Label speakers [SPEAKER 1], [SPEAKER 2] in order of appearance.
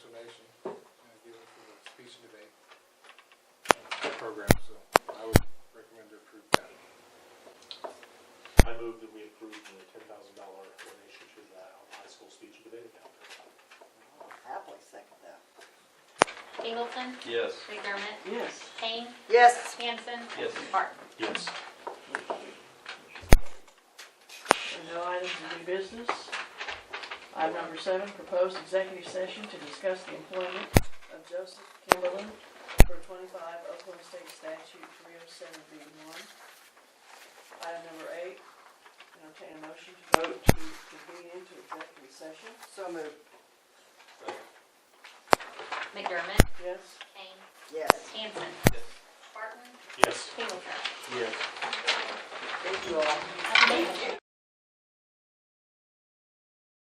[SPEAKER 1] uh, approve that. I move that we approve the ten thousand dollar donation to the high school speech and debate account.
[SPEAKER 2] I'll Happily second that.
[SPEAKER 3] Singleton,
[SPEAKER 4] Yes.
[SPEAKER 3] McDermott,
[SPEAKER 2] Yes.
[SPEAKER 3] Kane,
[SPEAKER 2] Yes.
[SPEAKER 3] Hanson.
[SPEAKER 4] Yes.
[SPEAKER 3] Barton.
[SPEAKER 1] Yes.
[SPEAKER 5] There are no items of new business. Item number seven, proposed executive session to discuss the employment of Joseph Kimberlin for twenty-five Oklahoma State Statute three oh seven B one. Item number eight, entertain a motion to vote to convene into executive session.
[SPEAKER 2] So moved.
[SPEAKER 3] McDermott,
[SPEAKER 5] Yes?
[SPEAKER 3] Kane,
[SPEAKER 2] Yes.
[SPEAKER 3] Hanson.
[SPEAKER 4] Yes.
[SPEAKER 3] Barton,
[SPEAKER 1] Yes.
[SPEAKER 3] Singleton.
[SPEAKER 1] Yes.
[SPEAKER 5] Thank you all.
[SPEAKER 3] Have a good day.